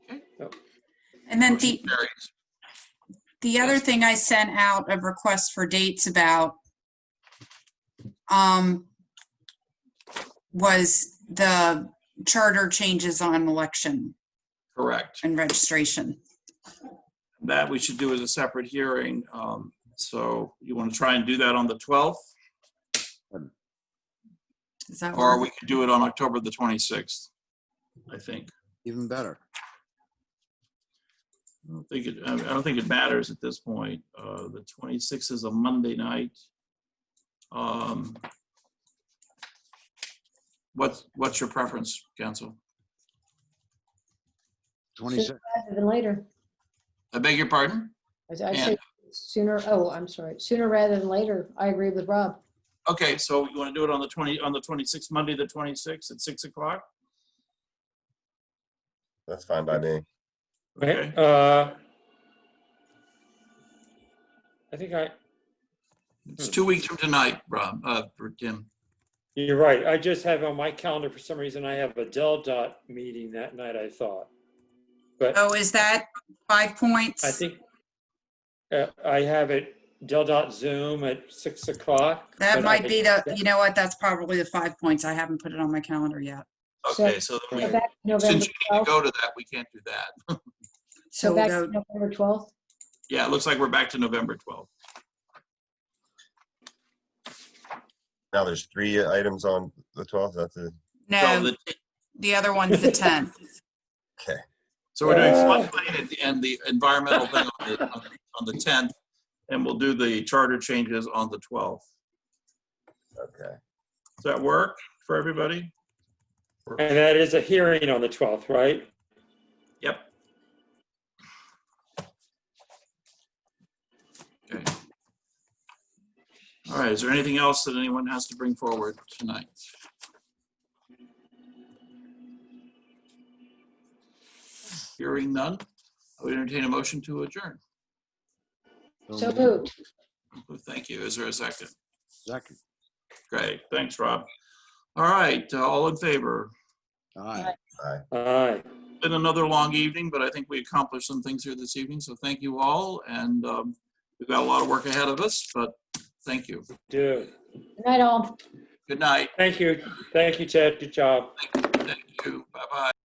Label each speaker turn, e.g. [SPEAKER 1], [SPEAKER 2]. [SPEAKER 1] And then
[SPEAKER 2] Motion
[SPEAKER 1] the,
[SPEAKER 2] carries.
[SPEAKER 1] the other thing I sent out of requests for dates about um, was the charter changes on election
[SPEAKER 2] Correct.
[SPEAKER 1] and registration.
[SPEAKER 2] That we should do as a separate hearing. Um, So you want to try and do that on the 12th?
[SPEAKER 1] Is that
[SPEAKER 2] Or
[SPEAKER 1] work?
[SPEAKER 2] we could do it on October the 26th, I think.
[SPEAKER 3] Even better.
[SPEAKER 2] I don't think it, I I don't think it matters at this point. Uh, The 26th is a Monday night. Um, What's, what's your preference, council?
[SPEAKER 3] 26.
[SPEAKER 4] Rather than later.
[SPEAKER 2] I beg your pardon?
[SPEAKER 4] I I
[SPEAKER 2] Yeah.
[SPEAKER 4] say sooner, oh, I'm sorry, sooner rather than later. I agree with Rob.
[SPEAKER 2] Okay, so you want to do it on the 20, on the 26th, Monday, the 26th at 6 o'clock?
[SPEAKER 5] That's fine by me.
[SPEAKER 2] Okay.
[SPEAKER 6] Right, uh, I think I,
[SPEAKER 2] It's two weeks from tonight, Rob, uh, for Tim.
[SPEAKER 6] you're right. I just have on my calendar, for some reason, I have a Del Dot meeting that night, I thought. But
[SPEAKER 1] Oh, is that five points?
[SPEAKER 6] I think uh, I have it Del Dot Zoom at six o'clock.
[SPEAKER 1] That
[SPEAKER 6] but
[SPEAKER 1] might
[SPEAKER 6] I-
[SPEAKER 1] be the, you know what, that's probably the five points. I haven't put it on my calendar yet.
[SPEAKER 2] Okay, so then
[SPEAKER 4] Go
[SPEAKER 2] we,
[SPEAKER 4] back to November
[SPEAKER 2] since you need to
[SPEAKER 4] 12th.
[SPEAKER 2] go to that, we can't do that.
[SPEAKER 1] So we'll
[SPEAKER 4] Go back
[SPEAKER 1] go,
[SPEAKER 4] to November 12th.
[SPEAKER 2] Yeah, it looks like we're back to November 12th.
[SPEAKER 5] Now there's three items on the 12th. That's it.
[SPEAKER 2] So
[SPEAKER 1] no,
[SPEAKER 2] the
[SPEAKER 1] the other one's the 10th.
[SPEAKER 2] So we're doing
[SPEAKER 6] Uh.
[SPEAKER 2] floodplain and the- and the environmental thing on the, on the- on the 10th, and we'll do the charter changes on the 12th.
[SPEAKER 5] Okay.
[SPEAKER 2] Does that work for everybody?
[SPEAKER 6] And that is a hearing on the twelfth, right?
[SPEAKER 2] Yep. Okay. All right, is there anything else that anyone has to bring forward tonight? Hearing none, I would entertain a motion to adjourn.
[SPEAKER 4] So moved.
[SPEAKER 2] Thank you. Is there a second?
[SPEAKER 3] Second.
[SPEAKER 2] Great, thanks, Rob. All right, uh, all in favor?
[SPEAKER 3] Aye.
[SPEAKER 6] Aye.
[SPEAKER 2] Been another long evening, but I think we accomplished some things here this evening, so thank you all, and um, we've got a lot of work ahead of us, but thank you.
[SPEAKER 6] Do.
[SPEAKER 4] Good night, all.
[SPEAKER 2] Good night,
[SPEAKER 6] Thank you. Thank you, Ted. Good job.
[SPEAKER 2] thank you, bye-bye.